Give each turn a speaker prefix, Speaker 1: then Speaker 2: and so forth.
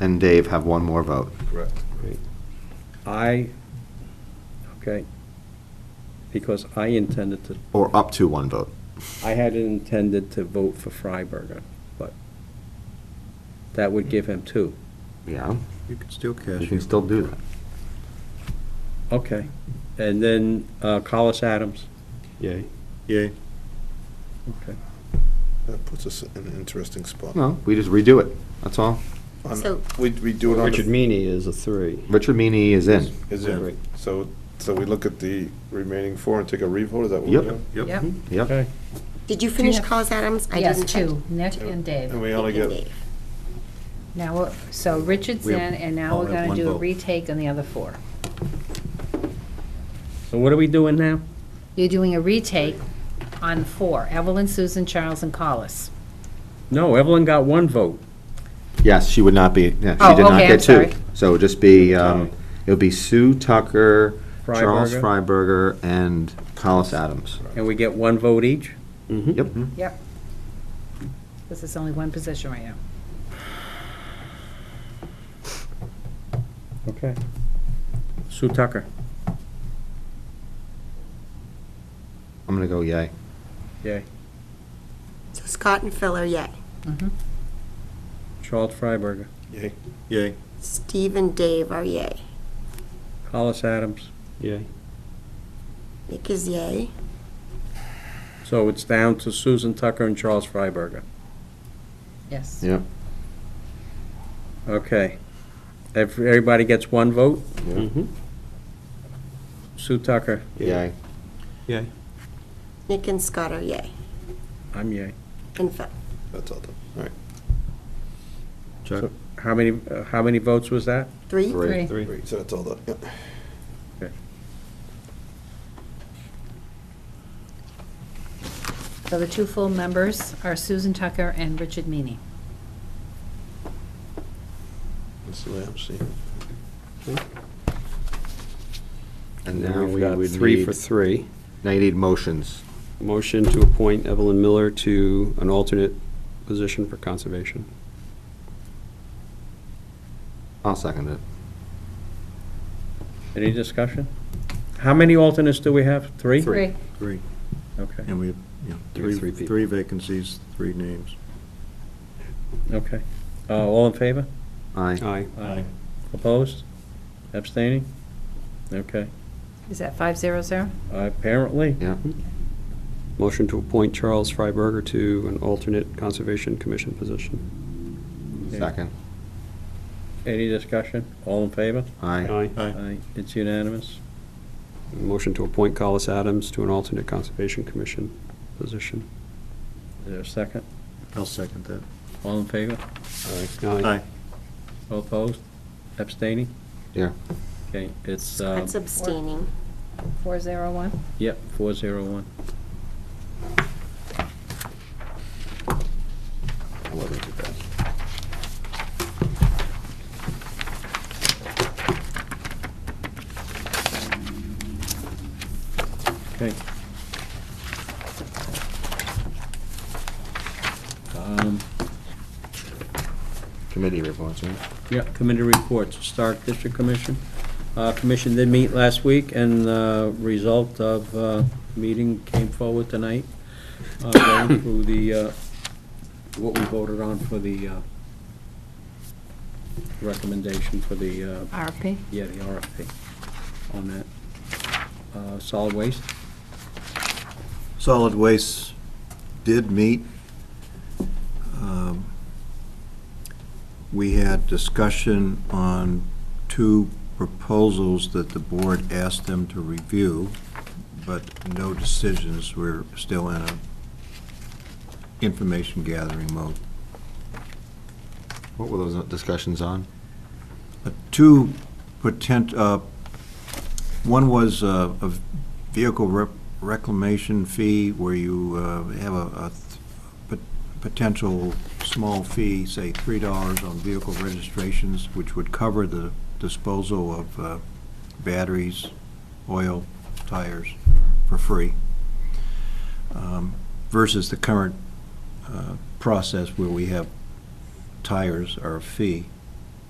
Speaker 1: and Dave have one more vote.
Speaker 2: Correct.
Speaker 3: I, okay, because I intended to,
Speaker 1: Or up to one vote.
Speaker 3: I had intended to vote for Freiberger, but that would give him two.
Speaker 1: Yeah,
Speaker 2: You can still cash
Speaker 1: you
Speaker 2: it.
Speaker 1: can still do that.
Speaker 3: Okay. And then uh, Collis Adams.
Speaker 4: Yay.
Speaker 2: Yay.
Speaker 3: Okay.
Speaker 2: That puts us in an interesting spot.
Speaker 1: No, we just redo it, that's all.
Speaker 2: On-
Speaker 5: So-
Speaker 2: We, we do it on
Speaker 4: Richard
Speaker 2: the,
Speaker 4: Meany is a three.
Speaker 1: Richard Meany is in.
Speaker 2: is it,
Speaker 4: Right.
Speaker 2: so, so we look at the remaining four and take a revote, is that what we're
Speaker 1: Yep.
Speaker 2: doing?
Speaker 6: Yep.
Speaker 1: Yep.
Speaker 5: Did you finish
Speaker 6: have-
Speaker 5: Collis Adams? I
Speaker 6: Yes,
Speaker 5: didn't check.
Speaker 6: two, Nick and
Speaker 2: And
Speaker 6: Dave.
Speaker 2: we only
Speaker 5: Nick and
Speaker 2: get,
Speaker 5: Dave.
Speaker 6: Now, we're- so Richard's
Speaker 2: We
Speaker 6: in,
Speaker 2: have-
Speaker 6: and
Speaker 2: all
Speaker 6: now we're
Speaker 2: have
Speaker 6: gonna
Speaker 2: one
Speaker 6: do a
Speaker 2: vote.
Speaker 6: retake on the other four.
Speaker 3: So what are we doing now?
Speaker 6: You're doing a retake on four, Evelyn, Susan, Charles, and Collis.
Speaker 3: No, Evelyn got one vote.
Speaker 1: Yes, she would not be, yeah,
Speaker 6: Oh,
Speaker 1: she did not
Speaker 6: okay, I'm
Speaker 1: get two.
Speaker 6: sorry.
Speaker 1: So it would just be, um, it would be Sue Tucker, Charles Freiberger, and Collis Adams.
Speaker 3: And we get one vote each?
Speaker 1: Yep.
Speaker 6: Yep. This is only one position right now.
Speaker 3: Okay. Sue Tucker.
Speaker 1: I'm gonna go yay.
Speaker 3: Yay.
Speaker 5: So Scott and Phil are yay.
Speaker 3: Charles Freiberger.
Speaker 2: yay,
Speaker 4: Yay.
Speaker 5: Steve and Dave are yay.
Speaker 3: Collis Adams.
Speaker 4: Yay.
Speaker 5: Nick is yay.
Speaker 3: So it's down to Susan Tucker and Charles Freiberger.
Speaker 6: Yes.
Speaker 1: Yep.
Speaker 3: Okay. Ev- Everybody gets one vote?
Speaker 4: Mhm.
Speaker 3: Sue Tucker,
Speaker 1: Yay.
Speaker 4: Yay.
Speaker 5: Nick and Scott are yay.
Speaker 3: I'm yay.
Speaker 5: And Phil.
Speaker 2: that's all done, all right.
Speaker 4: Chuck,
Speaker 3: So- How many, uh, how many votes was that?
Speaker 5: Three?
Speaker 6: Three.
Speaker 4: three.
Speaker 2: Great, so that's all done, yeah.
Speaker 6: So the two full members are Susan Tucker and Richard Meany.
Speaker 2: That's the way I'm seeing it.
Speaker 1: And
Speaker 4: Then
Speaker 1: now
Speaker 4: we've
Speaker 1: we
Speaker 4: got
Speaker 1: would
Speaker 4: Three
Speaker 1: need,
Speaker 4: for three.
Speaker 1: now you need motions.
Speaker 4: Motion to appoint Evelyn Miller to an alternate position for conservation.
Speaker 1: I'll second it.
Speaker 3: Any discussion? How many alternates do we have? Three?
Speaker 6: Three.
Speaker 7: Three,
Speaker 3: Okay,
Speaker 7: and we have, you know,
Speaker 4: Three- three
Speaker 7: three,
Speaker 4: people.
Speaker 7: three vacancies, three names.
Speaker 3: okay. Uh, All in favor?
Speaker 1: Aye.
Speaker 4: Aye.
Speaker 3: Aye. Opposed? Abstaining? Okay.
Speaker 6: Is that five zero zero?
Speaker 3: Apparently,
Speaker 1: Yeah.
Speaker 4: Motion to appoint Charles Freiberger to an alternate conservation commission position.
Speaker 1: Second.
Speaker 3: any discussion? All in favor?
Speaker 1: Aye.
Speaker 3: Aye. It's unanimous.
Speaker 4: Motion to appoint Collis Adams to an alternate conservation commission position.
Speaker 3: Is there a second?
Speaker 7: I'll second that.
Speaker 3: All in favor?
Speaker 7: Aye.
Speaker 3: All Opposed? Abstaining?
Speaker 1: Yeah.
Speaker 3: Okay, it's, uh,
Speaker 5: That's abstaining.
Speaker 6: Four zero one?
Speaker 3: yep, four zero one.
Speaker 1: I love it.
Speaker 3: Okay. Um,
Speaker 1: Committee reports, right?
Speaker 3: Yeah, committee reports, Stark District Commission. Uh, Commission did meet last week, and the result of uh, meeting came forward tonight, uh, going through the, uh, what we voted on for the uh, recommendation for the, uh,
Speaker 6: RFP?
Speaker 3: yeah, the RFP on that. Uh, Solid waste?
Speaker 7: Solid Waste did meet. Um, We had discussion on two proposals that the board asked them to review, but no decisions. We're still in a information gathering mode.
Speaker 1: What were those discussions on?
Speaker 7: Uh, Two potent, uh, one was uh, a vehicle rep- reclamation fee where you uh, have a a th- pot- potential small fee, say $3 on vehicle registrations, which would cover the disposal of uh, batteries, oil, tires for free, um, versus the current uh, process where we have tires are a fee.